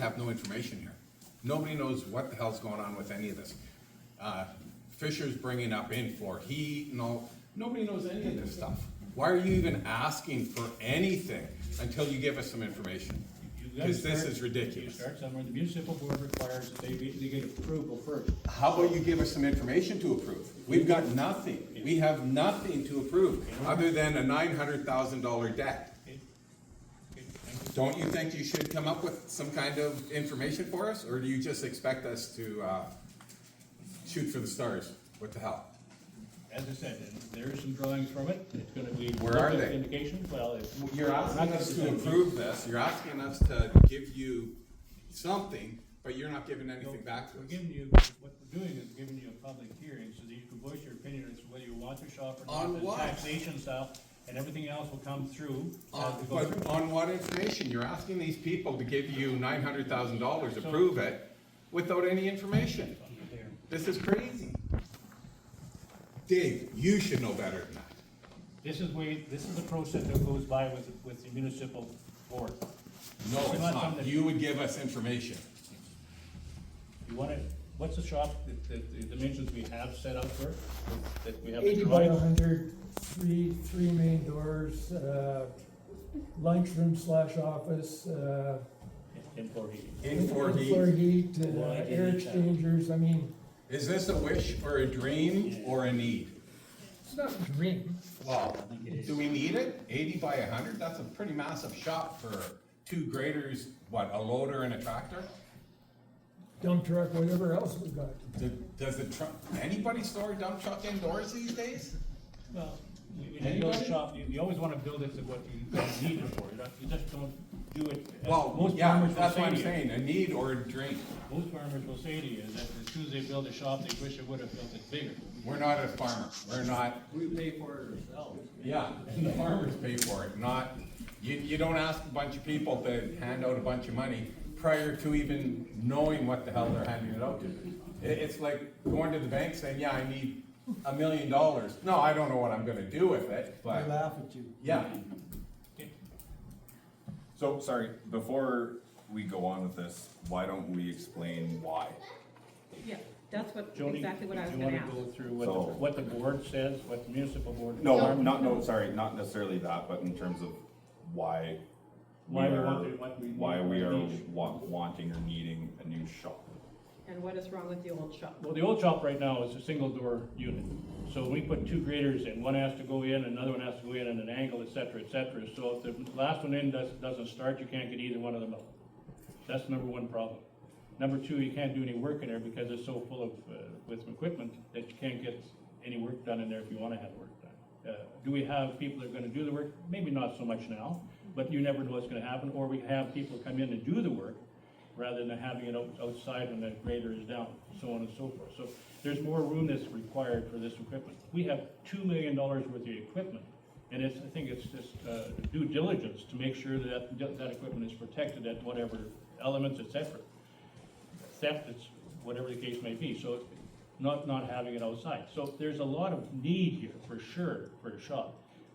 have no information here. Nobody knows what the hell's going on with any of this. Uh, Fisher's bringing up in for heat and all, nobody knows any of this stuff. Why are you even asking for anything until you give us some information? You gotta Because this start- is ridiculous. Start somewhere, the municipal board requires that they, be- they get approval first. How about you give us some information to approve? We've got nothing. We have nothing to approve, other than a nine hundred thousand dollar debt. Don't you think you should come up with some kind of information for us, or do you just expect us to, uh, shoot for the stars? What the hell? As I said, there are some drawings from it, it's gonna be. Where are they? Indication, well, it's. You're asking us to approve this, you're asking us to give you something, but you're not giving anything back to We're us. giving you, what we're doing is giving you a public hearing so that you can voice your opinion as to whether you want to shop or not. On the what? Taxation stuff, and everything else will come through. as On- we go Uh, But through. on what information? You're asking these people to give you nine hundred thousand dollars, approve it, without any information. This is crazy. Dave, you should know better than that. This is way, this is the process that goes by with, with the municipal board. No, We're it's not not. something- You would give us information. You wanna, what's the shop, the, the, the dimensions we have set up for, that we have the Eighty by drawing? a hundred, three, three main doors, uh, lunchroom slash office, uh. in four heating. In four Floor D. heat, uh, Why did air it happen? exchangers, I mean, Is this a wish or a dream or a need? it's not a dream. Well, do we need it? Eighty by a hundred? That's a pretty massive shop for two graders, what, a loader and a tractor? Dump truck, whatever else we've got. Do- Does the truck, anybody store a dump truck indoors these days? Well, you- you Anybody? build a shop, you, you always wanna build it to what you don't need it for, you don't, you just don't do it. as Well, most yeah, farmers will that's say what I'm to you. saying, a need or a dream. Most farmers will say to you that as soon as they build a shop, they wish they would have built it bigger. We're not a farmer, we're not, We pay for it ourselves. yeah, the farmers pay for it, not, you, you don't ask a bunch of people to hand out a bunch of money prior to even knowing what the hell they're handing it out to. It, it's like going to the bank saying, yeah, I need a million dollars. No, I don't know what I'm gonna do with it, I but, laugh at you. yeah, So, sorry, before we go on with this, why don't we explain why? Yeah, that's what, Joni, exactly what I was do you gonna wanna ask. go through what, So- the- what the board says, what the municipal board? No, not, no, sorry, not necessarily that, but in terms of why. Why we are- want to- what we need, Why we are need. wa- wanting or needing a new shop. And what is wrong with the old shop? Well, the old shop right now is a single door unit. So we put two graders in, one has to go in, another one has to go in at an angle, et cetera, et cetera. So if the last one in doesn't, doesn't start, you can't get either one of them out. That's number one problem. Number two, you can't do any work in there because it's so full of, uh, with equipment that you can't get any work done in there if you wanna have work done. Uh, Do we have people that are gonna do the work? Maybe not so much now, but you never know what's gonna happen. Or we have people come in and do the work rather than having it out- outside when the grader is down, so on and so forth. So there's more room that's required for this equipment. We have two million dollars worth of equipment, and it's, I think it's just uh, due diligence to make sure that that equipment is protected at whatever elements, et cetera. Theft, it's whatever the case may be, so not, not having it outside. So there's a lot of need here, for sure, for a shop.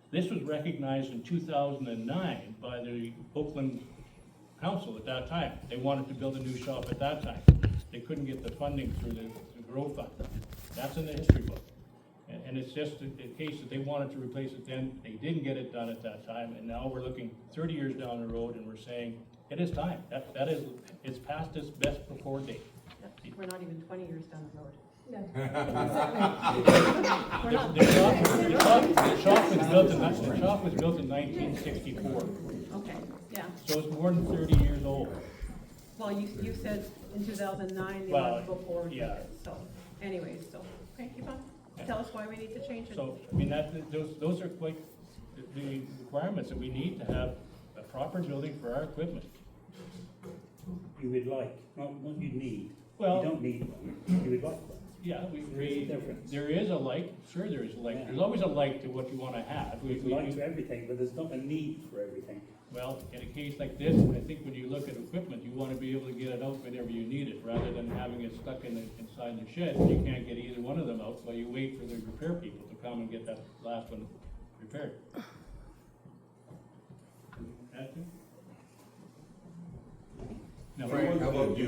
This was recognized in two thousand and nine by the Oakland council at that time. They wanted to build a new shop at that time. They couldn't get the funding through the the Grow Fund. That's in the history book. And, and it's just the, the case that they wanted to replace it then, they didn't get it done at that time, and now we're looking thirty years down the road and we're saying, it is time. That, that is, it's past its best before date. We're not even twenty years down the road. The the shop, the shop, the shop was built in, ni- the shop was built in nineteen sixty-four, Okay, yeah. so it's more than thirty years old. Well, you, you said in two thousand nine, they Well, wanted to go forward with yeah. it, so anyways, so, okay, keep on. Tell us why we need to change it. So, I mean, that, those, those are quite the- the requirements that we need to have a proper building for our equipment. you would like, not what you need. Well- You don't need one, you would like one. Yeah, we, There is a we, difference. there is a like, sure there is a like, Yeah. there's always a like to what you wanna have. We- You'd we- like for everything, but there's not a need for everything. Well, in a case like this, I think when you look at equipment, you wanna be able to get it out whenever you need it, rather than having it stuck in the, inside the shed. You can't get either one of them out, so you wait for the repair people to come and get that last one repaired. Add to? No. Frank, how about you?